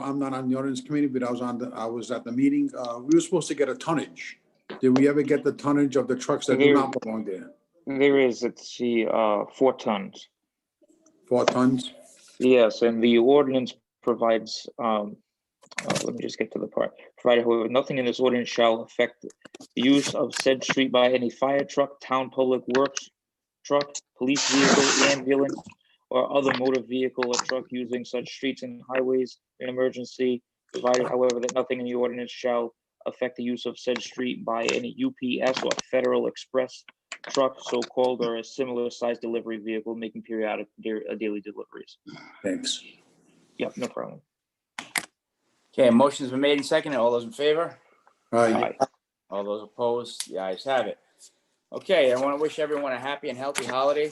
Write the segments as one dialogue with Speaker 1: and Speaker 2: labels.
Speaker 1: I'm not on the ordinance committee, but I was on the, I was at the meeting. Uh, we were supposed to get a tonnage. Did we ever get the tonnage of the trucks that do not belong there?
Speaker 2: There is, it's the, uh, four tons.
Speaker 1: Four tons?
Speaker 2: Yes, and the ordinance provides, um, uh, let me just get to the part. Provided however, nothing in this ordinance shall affect the use of said street by any fire truck, town public works truck, police vehicle, ambulance, or other motor vehicle or truck using such streets and highways in emergency. Provided however, that nothing in the ordinance shall affect the use of said street by any UPS or Federal Express truck, so-called, or a similar sized delivery vehicle making periodic da- uh, daily deliveries.
Speaker 1: Thanks.
Speaker 2: Yep, no problem.
Speaker 3: Okay, motion's been made and seconded. All those in favor?
Speaker 1: All right,
Speaker 2: Aye.
Speaker 3: All those opposed? The ayes have it. Okay, I want to wish everyone a happy and healthy holiday.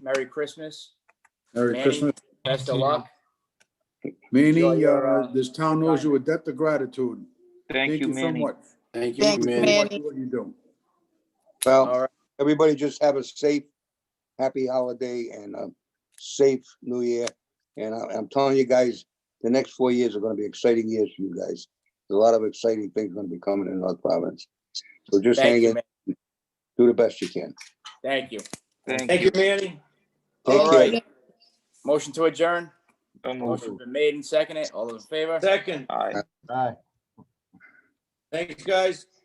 Speaker 3: Merry Christmas.
Speaker 1: Merry
Speaker 3: Manny.
Speaker 1: Christmas.
Speaker 3: Best of luck. Enjoy
Speaker 1: Manny,
Speaker 3: your,
Speaker 1: uh,
Speaker 3: uh,
Speaker 1: this town knows you a debt of gratitude.
Speaker 2: Thank you,
Speaker 1: so
Speaker 2: Manny.
Speaker 1: much.
Speaker 4: Thank you,
Speaker 5: Thanks,
Speaker 4: man.
Speaker 1: What
Speaker 5: Manny.
Speaker 1: you do.
Speaker 3: All
Speaker 4: Well,
Speaker 3: right.
Speaker 4: everybody just have a safe, happy holiday and a safe new year. And I- I'm telling you guys, the next four years are gonna be exciting years for you guys. There's a lot of exciting things gonna be coming in North Providence. So just
Speaker 3: Thank
Speaker 4: hang
Speaker 3: you,
Speaker 4: in,
Speaker 3: man.
Speaker 4: do the best you can.
Speaker 3: Thank you.
Speaker 2: Thank
Speaker 3: Thank
Speaker 2: you.
Speaker 3: you, Manny.
Speaker 4: Take
Speaker 3: All
Speaker 4: care.
Speaker 3: right. Motion to adjourn.
Speaker 2: So moved.
Speaker 3: Motion's been made and seconded. All those in favor?
Speaker 6: Second.
Speaker 2: Aye.
Speaker 6: Thanks, guys.